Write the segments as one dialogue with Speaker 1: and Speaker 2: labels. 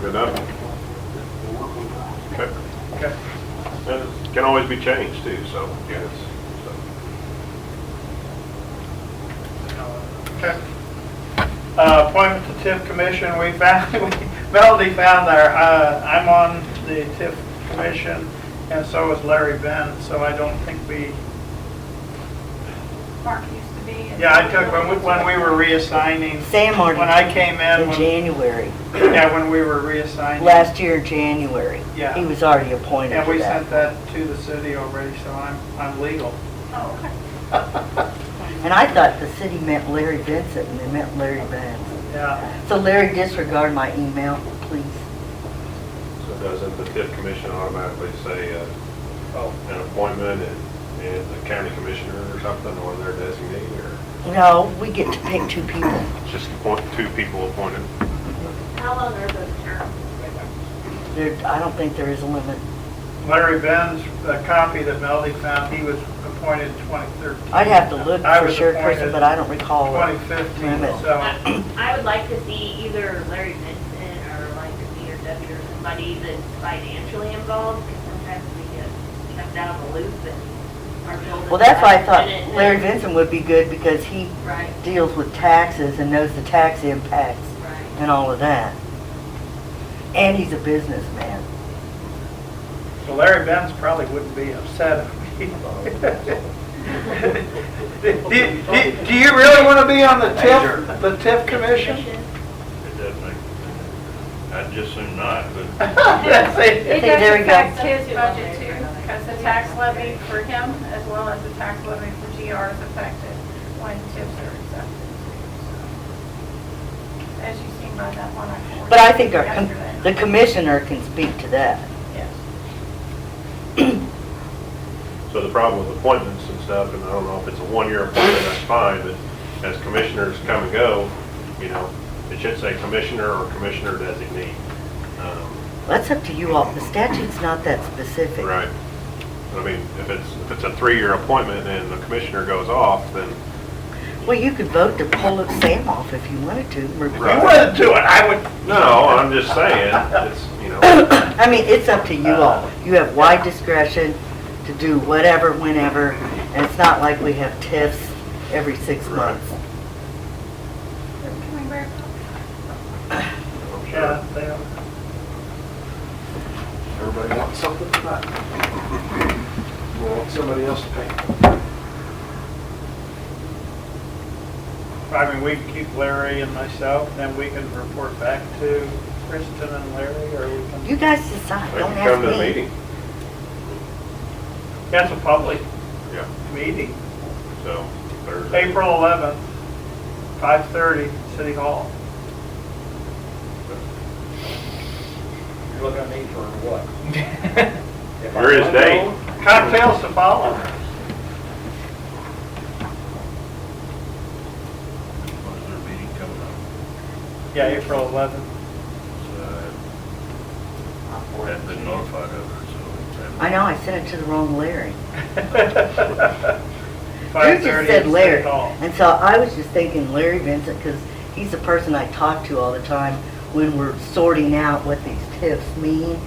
Speaker 1: Good enough? Okay. And it can always be changed too, so. Yes.
Speaker 2: Okay. Uh, Appointment to TIF commission, we found, Melody found our, uh, I'm on the TIF commission, and so is Larry Ben, so I don't think we,
Speaker 3: Mark used to be.
Speaker 2: yeah, I took, when we, when we were reassigning.
Speaker 4: Sam already-
Speaker 2: When I came in,
Speaker 4: In
Speaker 2: when-
Speaker 4: January,
Speaker 2: yeah, when we were reassigning.
Speaker 4: last year, January.
Speaker 2: Yeah.
Speaker 4: He was already appointed
Speaker 2: And we
Speaker 4: to
Speaker 2: sent
Speaker 4: that.
Speaker 2: that to the city already, so I'm, I'm legal.
Speaker 3: Oh, okay.
Speaker 4: And I thought the city meant Larry Vincent, and they meant Larry Benz.
Speaker 2: Yeah,
Speaker 4: So Larry, disregard my email, please.
Speaker 1: So doesn't the TIF commission automatically say, uh, an appointment and, and the county commissioner or something, or their designee, or
Speaker 4: No, we get to pick two people.
Speaker 1: just appoint two people appointed?
Speaker 3: How long are those terms?
Speaker 4: There, I don't think there is a limit.
Speaker 2: Larry Ben's, the copy that Melody found, he was appointed 2013.
Speaker 4: I'd have to look
Speaker 2: I
Speaker 4: for
Speaker 2: was
Speaker 4: sure, Kristen,
Speaker 2: appointed
Speaker 4: but I don't recall. a
Speaker 2: 2015,
Speaker 4: limit.
Speaker 2: so.
Speaker 5: I I would like to see either Larry Vincent or like Peter Duffy or somebody that's financially involved, because sometimes we get kept out of the loop and our buildings.
Speaker 4: Well, that's why I thought
Speaker 5: haven't been
Speaker 4: Larry
Speaker 5: in there.
Speaker 4: Vincent would be good because he
Speaker 5: Right,
Speaker 4: deals with taxes and knows the tax impacts
Speaker 5: right.
Speaker 4: and all of that. And he's a businessman.
Speaker 2: So Larry Benz probably wouldn't be upset. if he- Do do- do you really want to be on the TIF, the TIF commission?
Speaker 6: It does make, I'd just soon not, but
Speaker 2: That's it.
Speaker 3: It
Speaker 4: Okay, there
Speaker 3: does
Speaker 4: we go.
Speaker 3: affect his budget too, because the tax levy for him as well as the tax levy for GR is affected when tips are accepted too. so. As you seen by that one I forwarded.
Speaker 4: But I think our, com-
Speaker 3: yesterday.
Speaker 4: the commissioner can speak to that.
Speaker 3: Yes.
Speaker 1: So the problem with appointments and stuff, and I don't know if it's a one-year appointment, that's fine, but as commissioners come and go, you know, it should say commissioner or commissioner designee. Um,
Speaker 4: That's up to you all. The statute's not that specific.
Speaker 1: Right. I mean, if it's, if it's a three-year appointment and the commissioner goes off, then
Speaker 4: Well, you could vote to pull Sam off if you wanted to.
Speaker 1: Right.
Speaker 2: You wouldn't do it, I would.
Speaker 1: No, I'm just saying, it's, you know,
Speaker 4: I mean, it's up to you
Speaker 1: Uh,
Speaker 4: all. You have wide discretion to do whatever, whenever, and it's not like we have tiffs every six
Speaker 1: Right.
Speaker 4: months.
Speaker 3: Can we wrap up?
Speaker 1: I'm
Speaker 4: Uh,
Speaker 2: Yeah,
Speaker 1: sure
Speaker 2: they don't-
Speaker 7: Everybody wants something tonight. We want somebody else to pay.
Speaker 2: I mean, we can keep Larry and myself, and then we can report back to Kristen and Larry, or we can,
Speaker 4: You guys decide,
Speaker 1: they
Speaker 4: don't
Speaker 1: can come to the
Speaker 4: ask me.
Speaker 1: meeting.
Speaker 2: that's a public
Speaker 1: Yeah,
Speaker 2: meeting.
Speaker 1: so Thursday.
Speaker 2: April 11th, 5:30, City Hall.
Speaker 7: You're looking at me for what?
Speaker 1: Where is Dave?
Speaker 2: Cocktails to follow.
Speaker 6: what is their meeting coming up?
Speaker 2: Yeah, April 11th.
Speaker 6: So uh, I haven't been notified of it, so. haven't-
Speaker 4: I know, I sent it to the wrong Larry. You
Speaker 2: Five
Speaker 4: just
Speaker 2: thirty
Speaker 4: said
Speaker 2: at City
Speaker 4: Larry,
Speaker 2: Hall.
Speaker 4: and so I was just thinking Larry Vincent, because he's the person I talk to all the time when we're sorting out what these tips mean.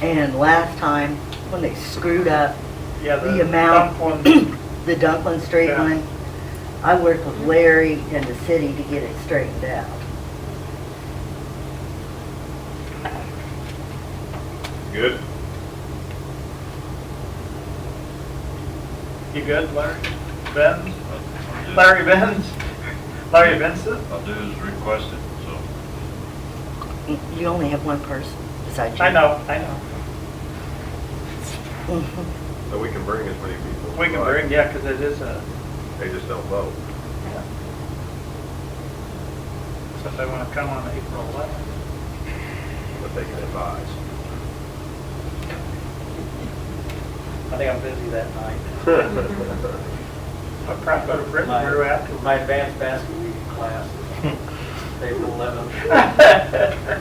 Speaker 4: And last time, when they screwed up
Speaker 2: Yeah,
Speaker 4: the
Speaker 2: the
Speaker 4: amount,
Speaker 2: dump one,
Speaker 4: the Dunklin Street
Speaker 2: Yeah.
Speaker 4: one, I worked with Larry and the city to get it straightened out.
Speaker 1: Good?
Speaker 2: you good, Larry? Benz?
Speaker 6: I'll do-
Speaker 2: Larry Benz? Larry Benson?
Speaker 6: I'll do as requested, so.
Speaker 4: You only have one person besides you.
Speaker 2: I know, I know.
Speaker 4: Mhm.
Speaker 1: So we can bring as many people. as
Speaker 2: We can
Speaker 1: like.
Speaker 2: bring, yeah, because it is a,
Speaker 1: They just don't vote.
Speaker 2: so if they want to come on April 11th.
Speaker 1: but they can advise.
Speaker 8: I think I'm busy that night.
Speaker 2: I'll probably go to Britain
Speaker 8: My-
Speaker 2: or after.
Speaker 8: My advanced basket weaving class is April 11th.
Speaker 3: um,